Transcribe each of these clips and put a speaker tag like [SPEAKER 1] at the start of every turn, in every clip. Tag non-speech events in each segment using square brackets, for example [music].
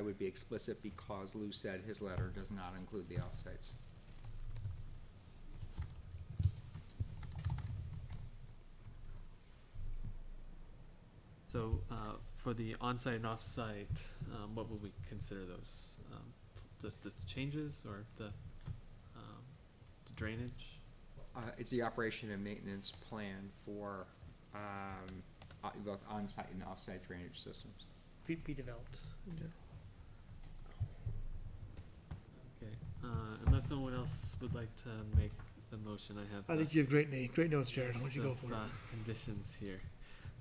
[SPEAKER 1] would be explicit because Lou said his letter does not include the offsites.
[SPEAKER 2] So, uh, for the onsite and offsite, um, what would we consider those, um, the, the changes or the, um, the drainage?
[SPEAKER 1] Uh, it's the operation and maintenance plan for, um, uh, both onsite and offsite drainage systems.
[SPEAKER 3] be, be developed.
[SPEAKER 2] Okay, uh, unless someone else would like to make a motion, I have.
[SPEAKER 4] I
[SPEAKER 2] the
[SPEAKER 4] think you have great na- great notes, Jared. Why
[SPEAKER 2] list
[SPEAKER 4] don't you go
[SPEAKER 2] of,
[SPEAKER 4] for
[SPEAKER 2] uh,
[SPEAKER 4] it?
[SPEAKER 2] Conditions here.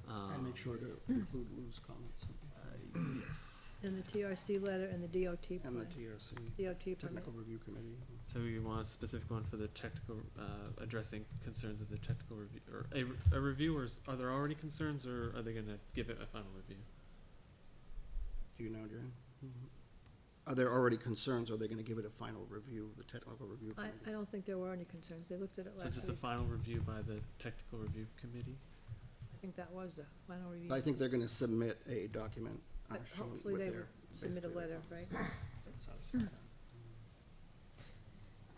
[SPEAKER 5] And
[SPEAKER 2] Um,
[SPEAKER 5] make sure to include Lou's comments
[SPEAKER 2] uh, yes,
[SPEAKER 6] And the TRC letter and the DOT
[SPEAKER 5] and the
[SPEAKER 6] plan,
[SPEAKER 5] TRC,
[SPEAKER 6] DOT permit.
[SPEAKER 5] Technical Review Committee.
[SPEAKER 2] so we want a specific one for the technical, uh, addressing concerns of the technical review, or a, re- a review, or is, are there already concerns, or are they gonna give it a final review?
[SPEAKER 5] Do you know, Jan? Are there already concerns? Are they gonna give it a final review, the Technical Review
[SPEAKER 6] I, I
[SPEAKER 5] Committee?
[SPEAKER 6] don't think there were any concerns, they looked at it
[SPEAKER 2] So
[SPEAKER 6] last
[SPEAKER 2] just a
[SPEAKER 6] week,
[SPEAKER 2] final review by the technical review committee?
[SPEAKER 6] I think that was the final review.
[SPEAKER 5] I think they're gonna submit a document, uh,
[SPEAKER 6] But
[SPEAKER 5] showing
[SPEAKER 6] hopefully
[SPEAKER 5] with
[SPEAKER 6] they
[SPEAKER 5] their.
[SPEAKER 6] Submit a
[SPEAKER 5] basically their
[SPEAKER 6] letter, right?
[SPEAKER 5] comments. That satisfies that.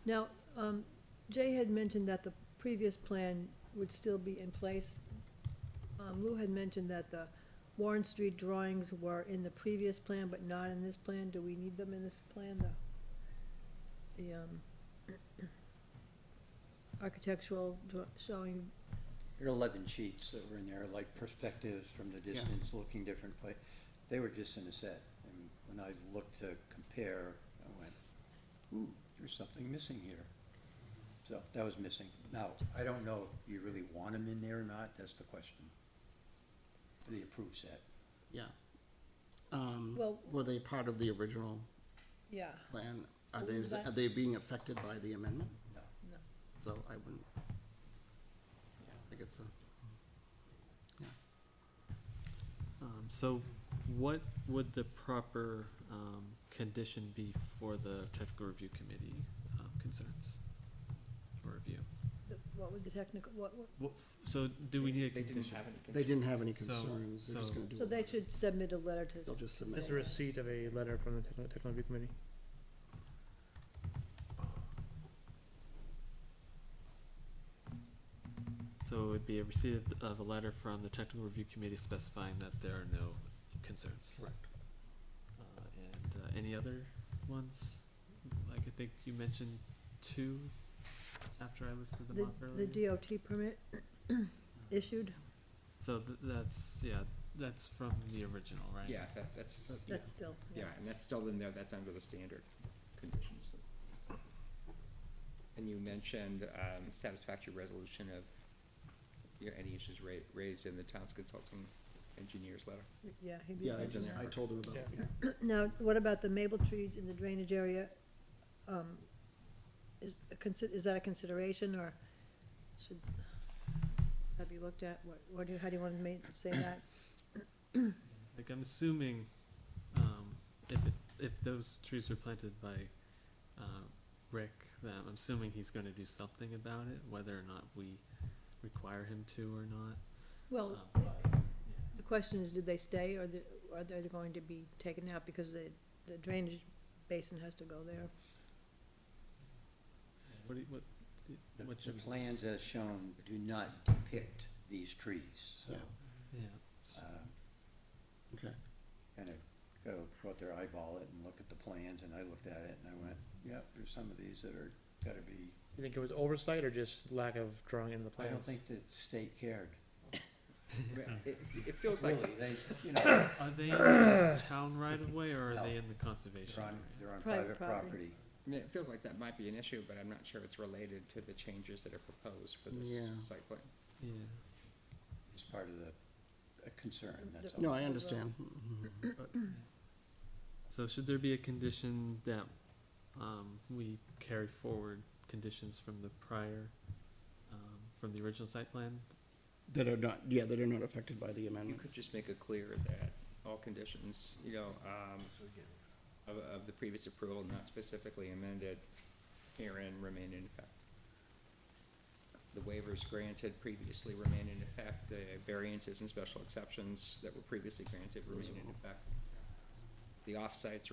[SPEAKER 6] Now, um, Jay had mentioned that the previous plan would still be in place. Um, Lou had mentioned that the Warren Street drawings were in the previous plan, but not in this plan. Do we need them in this plan, the, the, um, [clears throat] architectural draw, showing,
[SPEAKER 7] There are eleven sheets that were in there, like perspectives from the distance, looking different place. They were just in a set, and when I looked to compare, I went, ooh, there's something missing here. So that was missing. Now, I don't know if you really want them in there or not, that's the question. For The approved set.
[SPEAKER 5] Yeah. Um,
[SPEAKER 6] Well-
[SPEAKER 5] were they part of the original
[SPEAKER 6] yeah,
[SPEAKER 5] plan? Are
[SPEAKER 6] So
[SPEAKER 5] they,
[SPEAKER 6] we would like-
[SPEAKER 5] are they being affected by the amendment?
[SPEAKER 7] No.
[SPEAKER 6] No.
[SPEAKER 5] So I wouldn't, I think it's a.
[SPEAKER 2] Um, so what would the proper, um, condition be for the technical review committee, um, concerns? Or review?
[SPEAKER 6] the- what would the technical, what, what,
[SPEAKER 2] What, so do we need a
[SPEAKER 1] They didn't
[SPEAKER 2] condition?
[SPEAKER 1] have any.
[SPEAKER 5] They didn't have any
[SPEAKER 2] So-
[SPEAKER 5] concerns, they're just
[SPEAKER 2] so-
[SPEAKER 5] gonna do.
[SPEAKER 6] so
[SPEAKER 5] it.
[SPEAKER 6] they should submit a letter to.
[SPEAKER 5] They'll just submit.
[SPEAKER 3] That's a receipt of a letter from the technical, technical review committee.
[SPEAKER 2] So it would be a receipt of- of a letter from the technical review committee specifying that there are no concerns.
[SPEAKER 5] Correct.
[SPEAKER 2] Uh, and, uh, any other ones? Like I think you mentioned two after I listed them
[SPEAKER 6] The,
[SPEAKER 2] off earlier.
[SPEAKER 6] the DOT
[SPEAKER 5] [clears throat]
[SPEAKER 6] permit issued,
[SPEAKER 2] So th- that's, yeah, that's from the original, right?
[SPEAKER 1] Yeah, that, that's, yeah,
[SPEAKER 6] that's still, yeah.
[SPEAKER 1] yeah, and that's still in there, that's under the standard conditions. And you mentioned, um, satisfactory resolution of, you know, any issues ra- raised in the town's consulting engineer's letter.
[SPEAKER 6] Yeah. he'd be
[SPEAKER 5] Yeah, I
[SPEAKER 6] mentioned
[SPEAKER 5] just,
[SPEAKER 6] that.
[SPEAKER 5] I told them about, it,
[SPEAKER 3] Yeah.
[SPEAKER 5] yeah.
[SPEAKER 6] Now, what about the maple trees in the drainage area? Um, Is, a consi- is that a consideration, or should that be looked at? What, what do, you- how do you want to make, say
[SPEAKER 5] [coughs]
[SPEAKER 6] that?
[SPEAKER 2] Like, I'm assuming, um, if it, if those trees were planted by, uh, Rick, then I'm assuming he's gonna do something about it, whether or not we require him to or not.
[SPEAKER 6] Well,
[SPEAKER 2] Um,
[SPEAKER 6] the question is, did they stay, or the, are they going to be taken out, because the, the drainage basin has to go there?
[SPEAKER 2] What, do you- what,
[SPEAKER 7] The,
[SPEAKER 2] what
[SPEAKER 7] the
[SPEAKER 2] should,
[SPEAKER 7] plans as shown do not depict these trees, so,
[SPEAKER 5] Yeah.
[SPEAKER 2] yeah,
[SPEAKER 7] uh,
[SPEAKER 5] okay.
[SPEAKER 7] kind of go, go out there, eyeball it and look at the plans, and I looked at it and I went, yep, there's some of these that are, gotta be,
[SPEAKER 3] You think it was oversight or just lack of drawing in the
[SPEAKER 7] I
[SPEAKER 3] plans?
[SPEAKER 7] don't think the state cared.
[SPEAKER 1] It, it feels like,
[SPEAKER 7] Really, they, you know, they're
[SPEAKER 2] are
[SPEAKER 7] [coughs]
[SPEAKER 2] they in the town right of way or are
[SPEAKER 7] No.
[SPEAKER 2] they in the conservation
[SPEAKER 7] on,
[SPEAKER 2] area?
[SPEAKER 7] they're on
[SPEAKER 6] Private
[SPEAKER 7] private
[SPEAKER 6] property.
[SPEAKER 7] property.
[SPEAKER 1] I mean, it feels like that might be an issue, but I'm not sure it's related to the changes that are proposed for this
[SPEAKER 5] Yeah.
[SPEAKER 1] site plan.
[SPEAKER 2] Yeah,
[SPEAKER 7] It's part of the, a concern, that's all.
[SPEAKER 5] No, I understand, but
[SPEAKER 2] so should there be a condition that, um, we carry forward conditions from the prior, um, from the original site plan?
[SPEAKER 5] that are not, yeah, that are not affected by the
[SPEAKER 1] You
[SPEAKER 5] amendment.
[SPEAKER 1] could just make it clear that all conditions, you know, um, of, of the previous approval, not specifically amended, herein remain in effect. The waivers granted previously remain in effect, the variances and special exceptions that were previously granted remain in effect. The offsites